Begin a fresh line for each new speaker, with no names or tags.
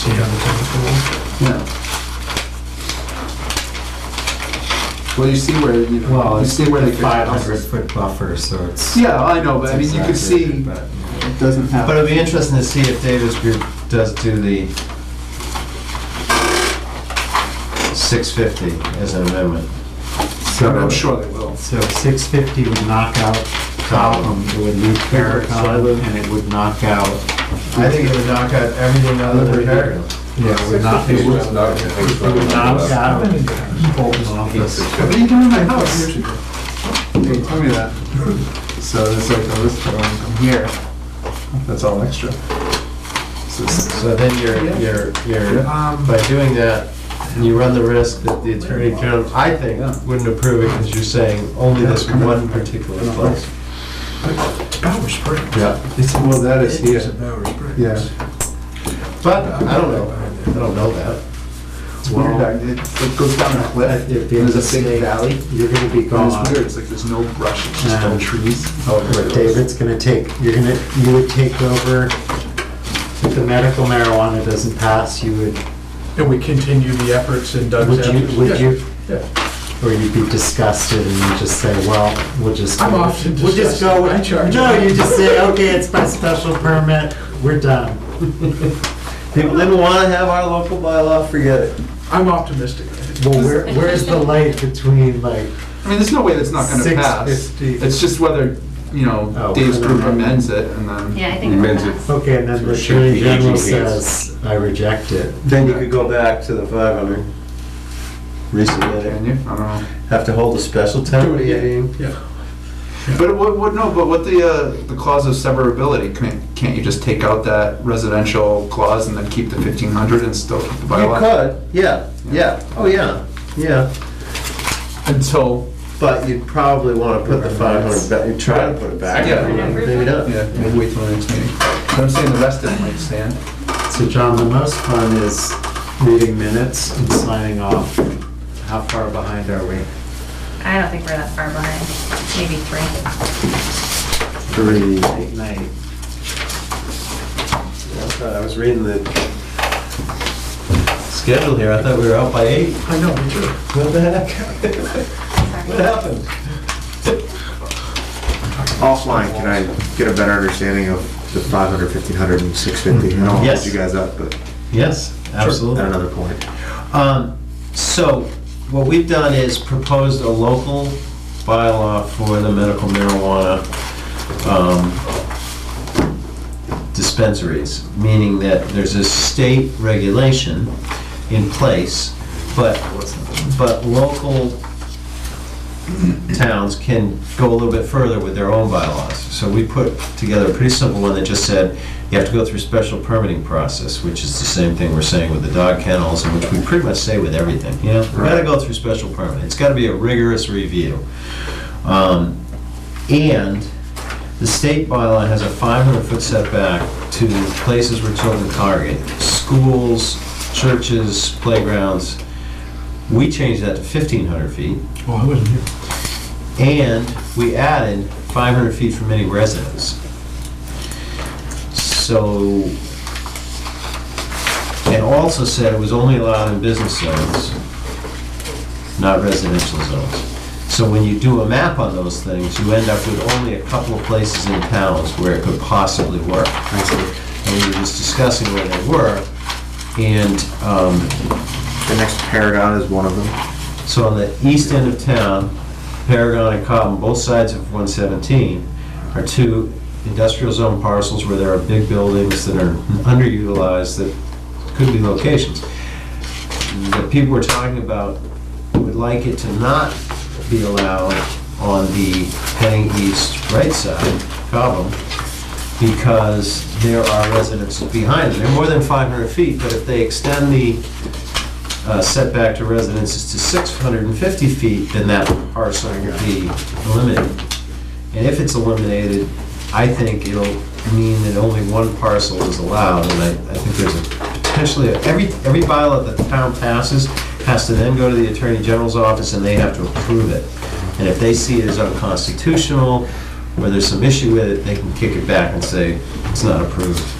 See how the temperature
Yeah. Well, you see where you,
Well,
you
it's
see where
the
they five hundred.
500 foot buffer, so it's.
Yeah, I know, but I mean,
it's
you can see
exaggerated,
it
But
doesn't have.
but it'll be interesting to see if Davis Group does do the 650 as an amendment.
I mean, I'm sure they will.
So six fifty would knock out Cobham, it would leave Paracon, and it would knock out,
I think it would knock out everything other than Paragon.
yeah, it would knock, it would knock
Not
out
will.
Bolton office.
What are you doing in my house? They told me that. So it's like, oh, this I'm here. That's all extra. So it's-
So then you're, you're, you're,
Um,
by doing that, you run the risk that the Attorney General, I think, wouldn't approve it because you're saying only this one particular place.
Bowers Springs.
Yeah.
it's, well, that is
It is
here.
in Bowers Springs.
Yeah.
But I don't know, I don't know that.
It's weird. I- It it goes down a cliff.
If
There's a
state-
big valley.
You're gonna be
And
gone.
it's weird. It's like there's no brush. It's just no
Um,
trees.
Oh,
David's gonna take, you're gonna, you would take over, if the medical marijuana doesn't pass, you would,
And we continue the efforts in Doug's
would
efforts.
you, would
Yeah,
you,
yeah.
or you'd be disgusted and you'd just say, well, we'll just.
I'm
go-
often
We'll just go
disgusted.
with-
I charge.
No, you just say, okay, it's by special permit, we're done.
People didn't want to have our local bylaw, forget it.
I'm optimistic.
Well, where, where's the light between like,
I mean, there's no way that's not gonna pass.
650.
It's just whether, you know,
Oh.
Dave's group amends it and then.
Yeah, I think.
Men's it.
that's-
okay, and then the
So it should
attorney
be
general
18 hands.
says, I reject it.
Then you could go back to the 500.
Can
Resubmit it.
you? I don't know.
Have to hold a special town meeting.
Yeah.
But what, what, no, but what the, uh, the clause of severability, can't, can't you just take out that residential clause and then keep the fifteen hundred and still keep the
You
bylaw?
could, yeah, yeah, oh, yeah, yeah.
Until,
But you'd probably want to put the 500 back, you'd try to put it back.
Yeah.
Maybe not.
yeah, maybe wait till the next meeting. But I'm saying the rest of it might stand.
So John, the most fun is reading minutes and signing off. How far behind are we?
I don't think we're that far behind, maybe three.
Three.
Late night.
I thought- I was reading the schedule here, I thought we were out by eight.
I know, me too.
What the heck? What happened?
Offline, can I get a better understanding of the 500, 1500, and 650? I don't want to
Yes.
hold you guys up, but
Yes, absolutely.
at another point.
Um, So, what we've done is proposed a local bylaw for the medical marijuana um, dispensaries, meaning that there's a state regulation in place, but, but local towns can go a little bit further with their own bylaws. So we put together a pretty simple one that just said, you have to go through a special permitting process, which is the same thing we're saying with the dog kennels, and which we pretty much say with everything, you know? You gotta go through special permit, it's gotta be a rigorous review. Um, And the state bylaw has a 500-foot setback to places where children congregate, schools, churches, playgrounds. We changed that to 1,500 feet.
Well, Oh, I wasn't here.
And we added 500 feet from any residence. So, and also said it was only allowed in business zones, not residential zones. So when you do a map on those things, you end up with only a couple of places in towns where it could possibly work. And we were just discussing where they were, and um,
The next paragon is one of them.
so on the east end of town, Paragon and Cobham, both sides of 117, are two industrial zone parcels where there are big buildings that are underutilized that could be locations. The people we're talking about would like it to not be allowed on the heading east right side, Cobham, because there are residences behind them. They're more than 500 feet, but if they extend the uh, setback to residences to 650 feet, then that parcel will be eliminated. And if it's eliminated, I think it'll mean that only one parcel is allowed, and I, I think there's a potentially, every, every bylaw that the town passes has to then go to the Attorney General's office, and they have to approve it. And if they see it as unconstitutional, or there's some issue with it, they can kick it back and say, it's not approved.